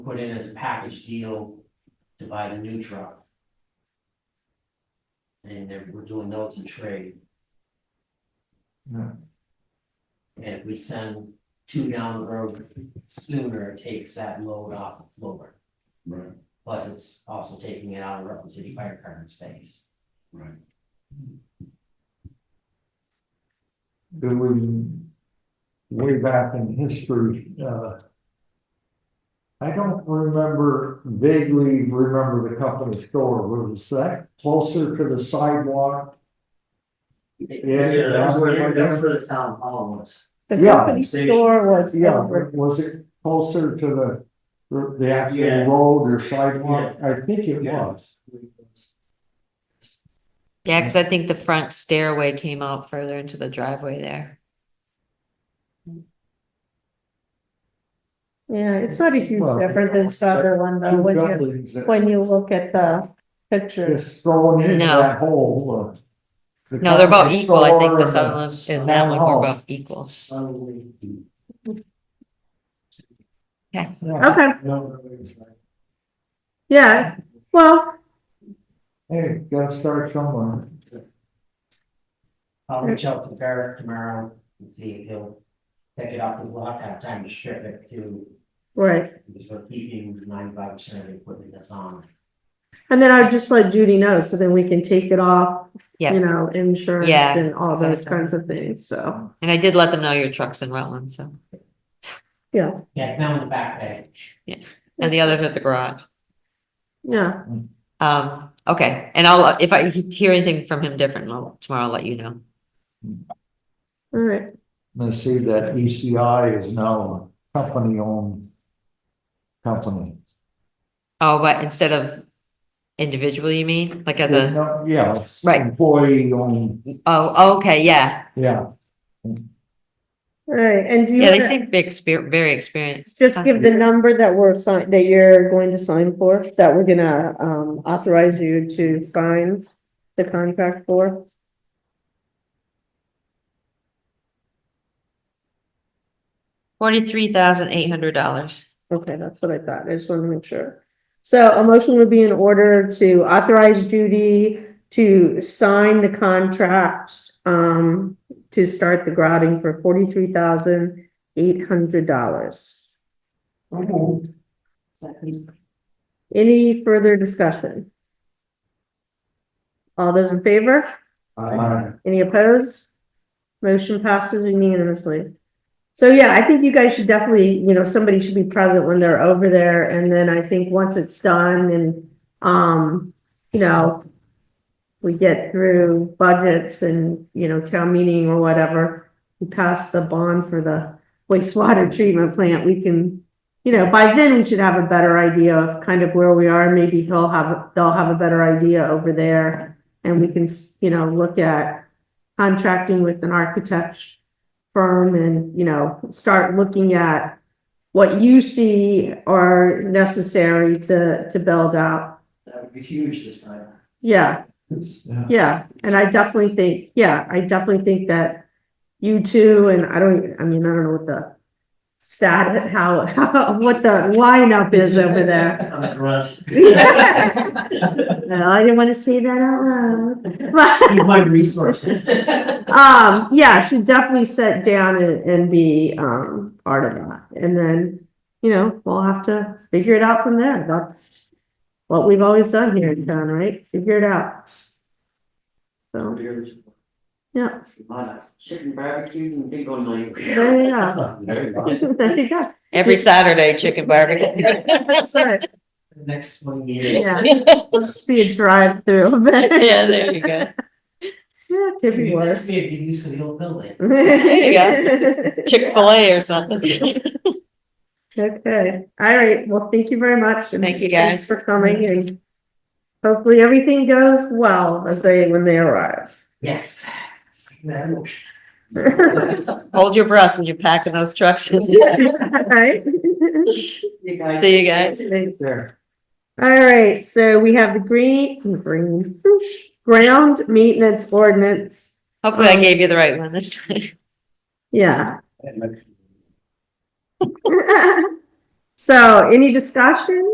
put in as a package deal to buy the new truck. And then we're doing notes and trade. Yeah. And if we send two down the road sooner, it takes that load off the loader. Right, Plus, it's also taking it out of Rutland City Fire Department space. right. There was way back in history, uh. I don't remember vaguely remember the company store, was that closer to the sidewalk? Yeah, that was where, yeah. that's where the town hall was. The Yeah, company they- store was Yeah, over, was it closer to the, the- the Yeah. actual road or sidewalk? I think it was. Yeah, because I think the front stairway came out further into the driveway there. yeah, it's not a huge Well, difference than Sutherland though, Two when you, buildings that when you look at the pictures. Just throwing in No. that hole. uh, the No, they're about company equal. I think store the and Sutherland and that one were town about equal. Suddenly. Yeah, Okay, no, no, it's like- yeah, well, Hey, gotta start somewhere. I'll reach out to Gareth tomorrow and see if he'll pick it up, we'll have to have time to strip it too, right. because we're keeping ninety-five percent of the equipment that's on. And then I would just let Judy know, so then we can take it off, Yeah. you know, insurance Yeah, and all those exactly. kinds of things, so, And I did let them know your truck's in Rutland, so, yeah, Yeah, it's now in the backpack. and the others are at the garage. yeah. Um, okay, and I'll, if I hear anything from him different, I'll- tomorrow I'll let you know. All right, And I see that ECI is now a company-owned company. Oh, but instead of individually, you mean, like as a, No, Yeah, it's Right. employee-owned, oh, okay, yeah. yeah. all right, and do you Yeah, they wanna seem big, exper- very experienced. just Uh, give the number that we're sign, that you're going to sign for, that we're gonna, um, authorize you to sign the contract for? Forty-three thousand eight hundred dollars. Okay, that's what I thought. I just wanted to make sure. So a motion would be in order to authorize Judy to sign the contract um to start the grouting for forty-three thousand eight hundred dollars. Any further discussion? All those in favor? Uh, Any opposed? Motion passes unanimously. So yeah, I think you guys should definitely, you know, somebody should be present when they're over there, and then I think once it's done and, um, you know, we get through budgets and, you know, town meeting or whatever, we pass the bond for the wastewater treatment plant, we can, you know, by then we should have a better idea of kind of where we are, maybe he'll have, they'll have a better idea over there, and we can, s- you know, look at contracting with an architect firm and, you know, start looking at what you see are necessary to, to build out. That would be huge this time. Yeah, yeah. yeah. And I definitely think, yeah, I definitely think that you two, and I don't, I mean, I don't know what the stat, how, how, what the lineup is over there. I'm a grunt. Well, I didn't want to say that out loud. But- Use my resources. Um, yeah, she definitely sit down and, and be, um, part of that. And then, you know, we'll have to figure it out from there. That's what we've always done here in town, right? Figure it out. So, yeah, Chicken barbecue and big on my. there you go. There you go. Every Saturday, chicken barbecue. That's right. Next one year. Yeah, let's be a drive-through. Yeah, there you go. Yeah, it could be Maybe that worse. could be a good use for the old building. There Chick-fil-A or something. Okay, all right, well, thank you very much. and Thank you, thanks guys. For coming and hopefully everything goes well as they, when they arrive. Yes. That motion. Hold your breath when you're packing those trucks. Alright. You guys. See you guys. There. Alright, so we have the green, green, whoosh, ground maintenance ordinance, Hopefully I gave you the right one this time. yeah. So any discussion?